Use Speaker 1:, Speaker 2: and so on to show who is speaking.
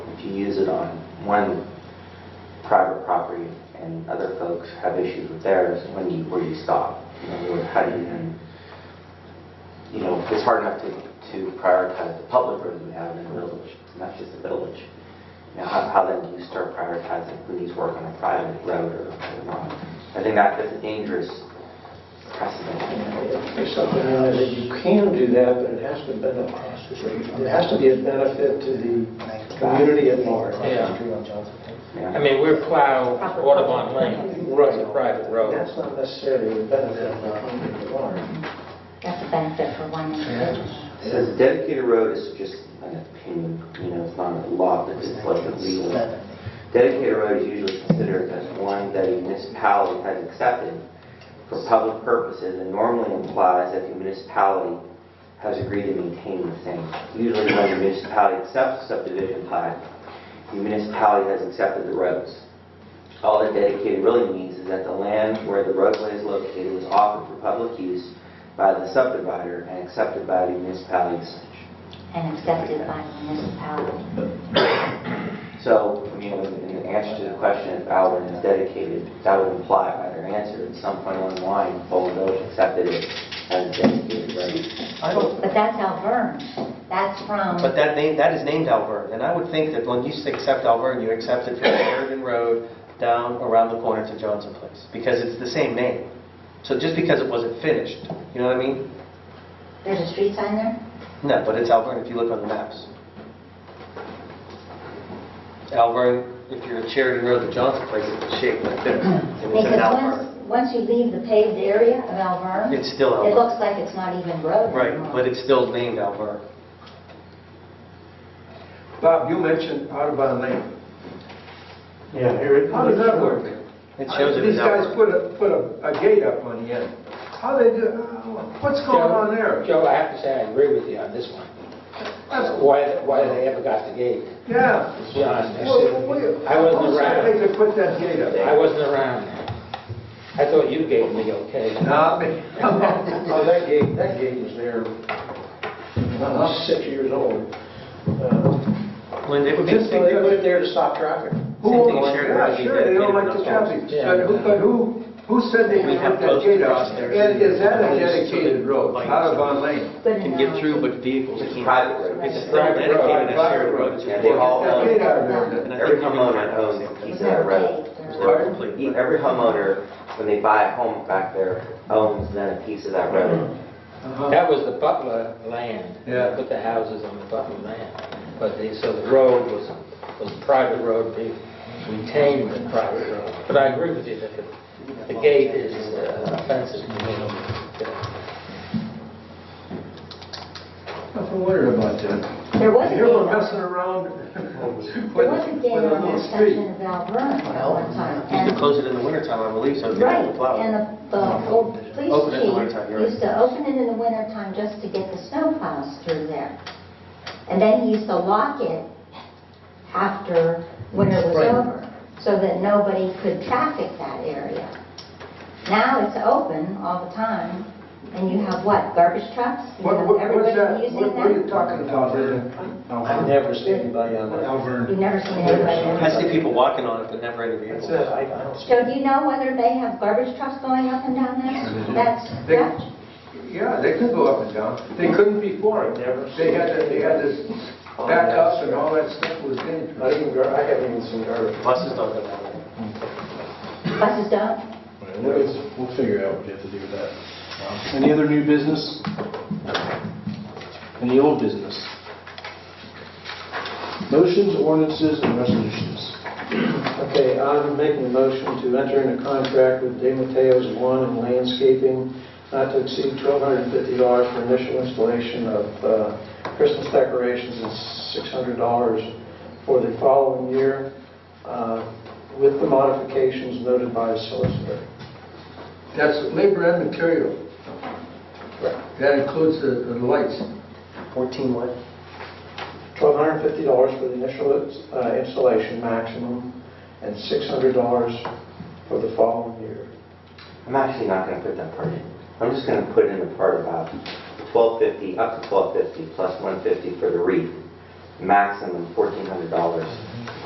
Speaker 1: if you use it on one private property and other folks have issues with theirs, when do you, where do you stop? You know, or how do you then, you know, it's hard enough to, to prioritize the public roads we have in the village, not just the village. Now, how, how then do you start prioritizing who needs work on a private road or or not? I think that that's a dangerous precedent.
Speaker 2: There's something in there that you can do that, but it has to benefit, it has to be a benefit to the community at large.
Speaker 3: Yeah.
Speaker 1: Yeah.
Speaker 3: I mean, we're plow Audubon Lane, it's a
Speaker 2: Right.
Speaker 3: private road.
Speaker 2: That's not necessarily a benefit of the community at large.
Speaker 4: That's a benefit for one individual.
Speaker 1: It says dedicated road is just an opinion, you know, it's not a law, but it's like a legal. Dedicated road is usually considered as one that a municipality has accepted for public purposes and normally implies that the municipality has agreed to maintain the same. Usually when the municipality accepts subdivision plat, the municipality has accepted the roads. All that dedicated really means is that the land where the roadway is located was offered for public use by the subdivider and accepted by the municipality as such.
Speaker 4: and accepted by the municipality.
Speaker 1: So, I mean, in the answer to the question, if Alvin is dedicated, that would imply by their answer, at some point along the line, Bowling Village accepted it as a dedicated road.
Speaker 5: I don't,
Speaker 4: But that's Alverne, that's from,
Speaker 5: but that name, that is named Alverne, and I would think that when you say accept Alverne, you accept it from Sheridan Road down around the corner to Johnson Place, because it's the same name. So just because it wasn't finished, you know what I mean?
Speaker 4: there's a street sign there?
Speaker 5: No, but it's Alverne if you look on the maps. Alverne, if you're at Sheridan Road to Johnson Place, it's shaped like this. and it's an
Speaker 4: Because
Speaker 5: Alverne.
Speaker 4: once, once you leave the paved area of Alverne,
Speaker 5: It's still
Speaker 4: it
Speaker 5: Alverne.
Speaker 4: looks like it's not even road anymore.
Speaker 5: Right, but it's still named Alverne.
Speaker 6: Bob, you mentioned Audubon Lane.
Speaker 2: Yeah, here it
Speaker 6: How does that work?
Speaker 5: It shows it as
Speaker 6: These guys
Speaker 5: Alverne.
Speaker 6: put a, put a a gate up on the end. How they do, oh, what's going on there?
Speaker 3: Joe, I have to say, I agree with you on this one.
Speaker 6: That's-
Speaker 3: Why, why they ever got the gate?
Speaker 6: Yeah.
Speaker 3: to be honest.
Speaker 6: Well, we-
Speaker 3: I wasn't
Speaker 6: Who's
Speaker 3: around,
Speaker 6: they to put that gate
Speaker 3: I
Speaker 6: up?
Speaker 3: wasn't around. I thought you gave me okay.
Speaker 6: Nah, me.
Speaker 2: Oh, that gate, that gate was there, when I was six years old. Uh,
Speaker 5: When they-
Speaker 2: Just so they put it there to stop traffic.
Speaker 6: Who,
Speaker 5: Same thing in Sheridan Road,
Speaker 6: yeah,
Speaker 5: they
Speaker 6: sure, they don't like
Speaker 5: dedicated
Speaker 6: the
Speaker 5: roads.
Speaker 6: traffic,
Speaker 3: Yeah.
Speaker 6: but who, but who, who said they
Speaker 5: We
Speaker 6: could
Speaker 5: have
Speaker 6: put that
Speaker 5: posts
Speaker 6: gate
Speaker 5: across
Speaker 6: up?
Speaker 5: there.
Speaker 6: And is that a
Speaker 5: Posts so
Speaker 6: dedicated
Speaker 5: that
Speaker 6: road,
Speaker 5: lights-
Speaker 6: Audubon Lane?
Speaker 4: Good
Speaker 5: can get through,
Speaker 4: analogy.
Speaker 5: but vehicles
Speaker 1: It's
Speaker 5: can't.
Speaker 1: private road.
Speaker 5: It's still dedicated as shared road. It's
Speaker 1: Yeah, they all
Speaker 5: uh,
Speaker 6: That gate
Speaker 1: own,
Speaker 6: out there,
Speaker 5: And I
Speaker 1: every
Speaker 5: think you
Speaker 1: homeowner
Speaker 5: might-
Speaker 1: owns a piece of
Speaker 4: There's
Speaker 1: that
Speaker 4: no
Speaker 1: road.
Speaker 4: gate, there's no-
Speaker 5: Or complete.
Speaker 1: E- Every homeowner, when they buy a home back there, owns then a piece of that road.
Speaker 6: Uh-huh.
Speaker 3: That was the Butler land.
Speaker 6: Yeah.
Speaker 3: Put the houses on the Butler land. But they, so the road was, was a private road, they retained the private road. But I agree with you that the, the gate is uh, offensive.
Speaker 6: Nothing to worry about that.
Speaker 4: There was a
Speaker 6: Here we're
Speaker 4: gate,
Speaker 6: messing around.
Speaker 4: there was a
Speaker 6: with-
Speaker 4: gate
Speaker 6: with a
Speaker 4: on
Speaker 6: little
Speaker 4: that
Speaker 6: street.
Speaker 4: section of Alverne at one time.
Speaker 5: You
Speaker 4: and-
Speaker 5: can close it in the wintertime, I believe, so it
Speaker 4: Right,
Speaker 5: doesn't
Speaker 4: and
Speaker 5: plow.
Speaker 4: the, the old police
Speaker 5: Open it in the wintertime,
Speaker 4: chief
Speaker 5: you're right.
Speaker 4: used to open it in the wintertime just to get the snowplows through there. And then he used to lock it after winter was over, so that nobody could traffic that area. Now it's open all the time, and you have what, garbage trucks? You
Speaker 6: What,
Speaker 4: have
Speaker 6: what- what's
Speaker 4: everybody
Speaker 6: that,
Speaker 4: using
Speaker 6: what what are you
Speaker 4: them?
Speaker 6: talking about? Vivian?
Speaker 2: I've never seen anybody on that.
Speaker 6: Alverne.
Speaker 4: You've never seen anybody.
Speaker 5: I
Speaker 4: there.
Speaker 5: see people walking on it, but never in a
Speaker 2: That's it,
Speaker 5: vehicle.
Speaker 2: I, I don't.
Speaker 4: Joe, do you know whether they have garbage trucks going up and down there? That's,
Speaker 6: They-
Speaker 4: that's
Speaker 6: Yeah, they could go up and down. They couldn't before.
Speaker 2: Never.
Speaker 6: They had, that- they had this backups and all that stuff was dangerous.
Speaker 2: Not even, gar- I haven't even seen garbage.
Speaker 5: Buses don't go down there.
Speaker 4: buses don't?
Speaker 7: We'll figure out what we have to do with that. Um, Any other new business? Any old business? Motions, ordinances, and resolutions.
Speaker 2: Okay, I'm making a motion to enter into contract with De Mateo's Lawn and Landscaping not to exceed $1,250 for initial installation of uh, Christmas decorations and $600 for the following year uh, with the modifications noted by a solicitor.
Speaker 6: That's labor and material. That includes the, the lights.
Speaker 5: 14 what?
Speaker 2: $1,250 for the initial uh, installation maximum and $600 for the following year.
Speaker 1: I'm actually not gonna put that part in. I'm just gonna put in the part about twelve fifty, up to twelve fifty, plus one fifty for the wreath, maximum fourteen hundred dollars